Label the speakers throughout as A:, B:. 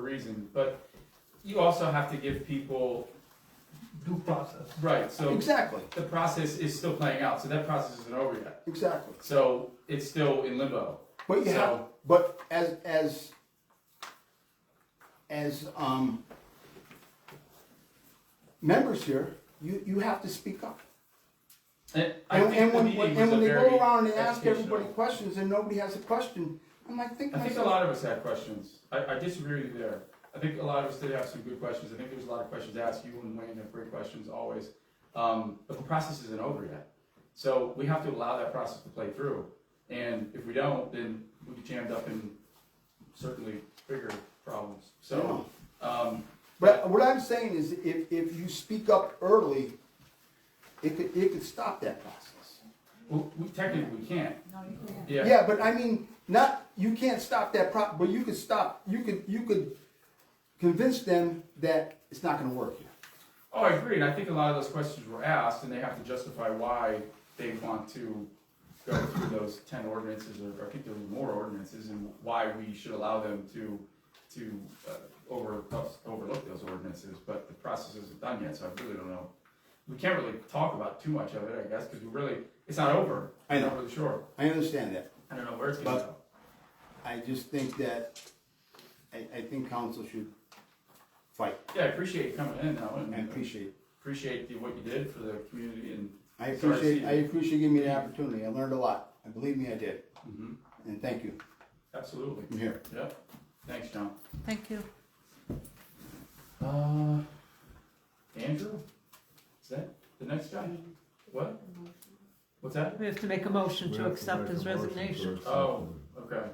A: reason, but you also have to give people,
B: due process.
A: right, so
C: Exactly,
A: the process is still playing out, so that process isn't over yet.
C: exactly.
A: So it's still in limbo.
C: But you have,
A: So-
C: but as, as, as, um, members here, you, you have to speak up.
A: And I
C: And,
A: think
C: and
A: the
C: when,
A: meeting
C: when-
A: was
C: and
A: a
C: when they
A: very
C: go around and ask everybody
A: educational-
C: questions and nobody has a question, I'm like, think
A: I think a
C: myself,
A: lot of us had questions. I, I disagree with you there. I think a lot of us did have some good questions. I think there was a lot of questions asked. You and Wayne have great questions always. Um, but the process isn't over yet. So we have to allow that process to play through. And if we don't, then we'll be jammed up in certainly bigger problems. So, um,
C: but what I'm saying is if, if you speak up early, it could, it could stop that process.
A: we, we technically we can't.
D: No, you can't.
A: Yeah.
C: Yeah, but I mean, not, you can't stop that prop, but you could stop, you could, you could convince them that it's not gonna work here.
A: Oh, I agree. And I think a lot of those questions were asked and they have to justify why they want to go through those ten ordinances or I think there were more ordinances and why we should allow them to, to, uh, over, overlook those ordinances, but the process isn't done yet, so I really don't know. We can't really talk about too much of it, I guess, because we really, it's not over.
C: I know.
A: Not really sure.
C: I understand that.
A: I don't know where it's gonna
C: But-
A: go.
C: I just think that, I, I think council should fight.
A: Yeah, I appreciate you coming in now
C: I
A: and
C: appreciate, it.
A: appreciate the- what you did for the community and. Sorry,
C: I appreciate,
A: Steve.
C: I appreciate you giving me the opportunity. I learned a lot. And believe me, I did.
A: Mhm.
C: And thank you.
A: Absolutely.
C: I'm here.
A: Yep. Thanks, John.
D: Thank you.
A: Uh, Andrew? Is that the next guy? What? What's that?
D: We have to make a motion
E: We
D: to
E: have
D: accept
E: make
D: his
E: a motion to
D: resignation,
E: accept
A: Oh,
E: him.
A: okay.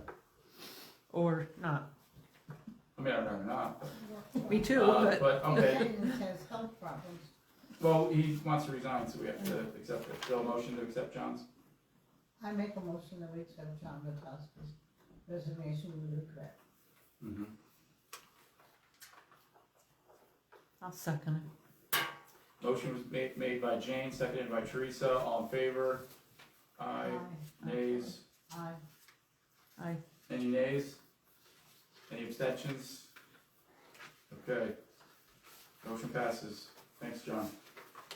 D: or not.
A: I mean, I'd rather not.
D: Me too,
A: Uh,
D: but
A: But, okay,
F: Dennis has health problems.
A: well, he wants to resign, so we have to accept it. Still a motion to accept John's?
F: I make a motion that we accept John Bukowski's resignation with regret.
A: Mm-hmm.
D: I'll second it.
A: Motion was made, made by Jane, seconded by Teresa, all in favor? Aye, nays,
F: Aye.
D: I,
A: any nays? Any abstentions? Okay. Motion passes. Thanks, John.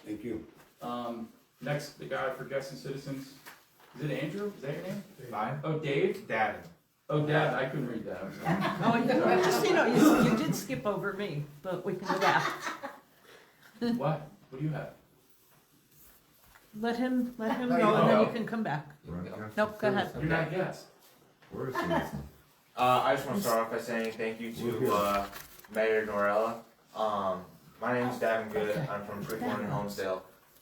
C: Thank you.
A: Um, next, the guy for guests and citizens, is it Andrew? Is that your name?
G: Mine?
A: Oh, Dave?
G: Dad.
A: Oh, Dad, I couldn't read that. I'm sorry.
D: oh, you, well, just, you know, you, you did skip over me, but we can go back.
A: What? What do you have?
D: Let him, let him
G: Oh, you
D: go and then you
G: know.
D: can come back.
E: Right after
D: Nope, go ahead.
E: Thursday.
A: You're not a guest.
E: Where is Thursday?
G: Uh, I just want to start off by saying thank you to uh, Mayor Norella. Um, my name is Davin Good. I'm from Freeborn in Homestead.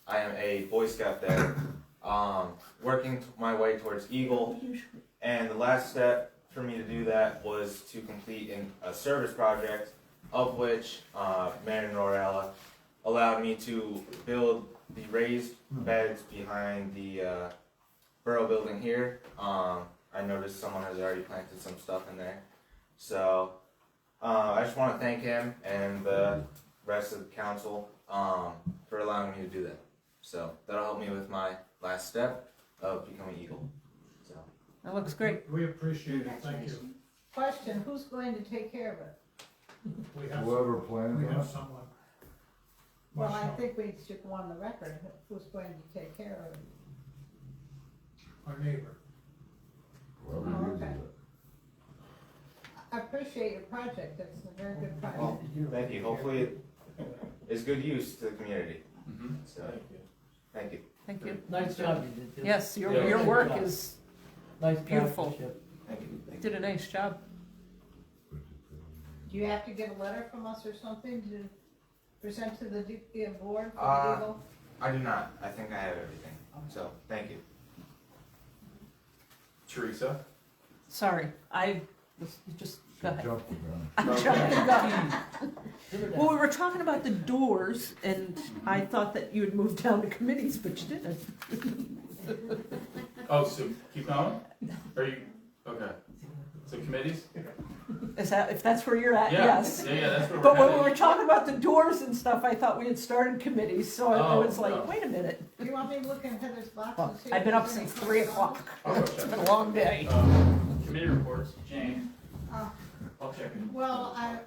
G: I am a Boy Scout there, um, working t- my way towards Eagle. And the last step for me to do that was to complete an, a service project, of which uh, Mayor Norella allowed me to build the raised beds behind the uh, borough building here. Um, I noticed someone has already planted some stuff in there. So uh, I just want to thank him and the rest of the council um, for allowing me to do that. So that'll help me with my last step of becoming Eagle. So
D: That looks great.
H: We appreciate it, thank you.
F: Question, who's going to take care of it?
H: We have,
E: Whoever
H: we
E: planned
H: have
E: that.
H: someone.
F: Well, I
H: Myself.
F: think we should go on the record, who's going to take care of it?
H: Our neighbor.
E: Whoever
F: Oh,
E: uses
F: okay.
E: it.
F: I appreciate your project, that's a very good
G: well,
F: project.
G: thank you. Hopefully it is good use to the community.
A: Mm-hmm.
G: So thank you.
D: Thank you.
I: Nice job you did, too.
D: Yes, your,
A: Yeah.
D: your work is,
I: Nice
D: beautiful.
I: craftsmanship.
G: Thank you.
D: you did a nice job.
F: Do you have to get a letter from us or something to present to the D- uh, board for
G: Uh,
F: legal?
G: I do not. I think I have everything. So thank you.
A: Teresa?
D: Sorry, I was, you just, go
E: Should
D: ahead.
E: jump the gun.
D: I'm jumping the gun. Well, we were talking about the doors and
A: Mm-hmm.
D: I thought that you had moved down to committees, but you didn't.
A: Oh, so keep going? Are you, okay. So committees?
D: Is that, if that's where you're at,
A: Yeah.
D: Uh, yes.
A: Yeah, yeah, that's where we're
D: But when we
A: headed.
D: were talking about the doors and stuff, I thought we had started committees, so I- I
A: Oh,
D: was
A: no.
D: like, wait a minute.
F: Do you want me to look in Heather's box and see?
D: I've
F: if
D: been up
F: there's any
D: since three
F: correspondence?
D: o'clock.
A: I'll go
D: It's
A: check.
D: been a long day.
A: Um, Committee reports, Jane,
F: Uh,
A: I'll check in.
F: Well, I,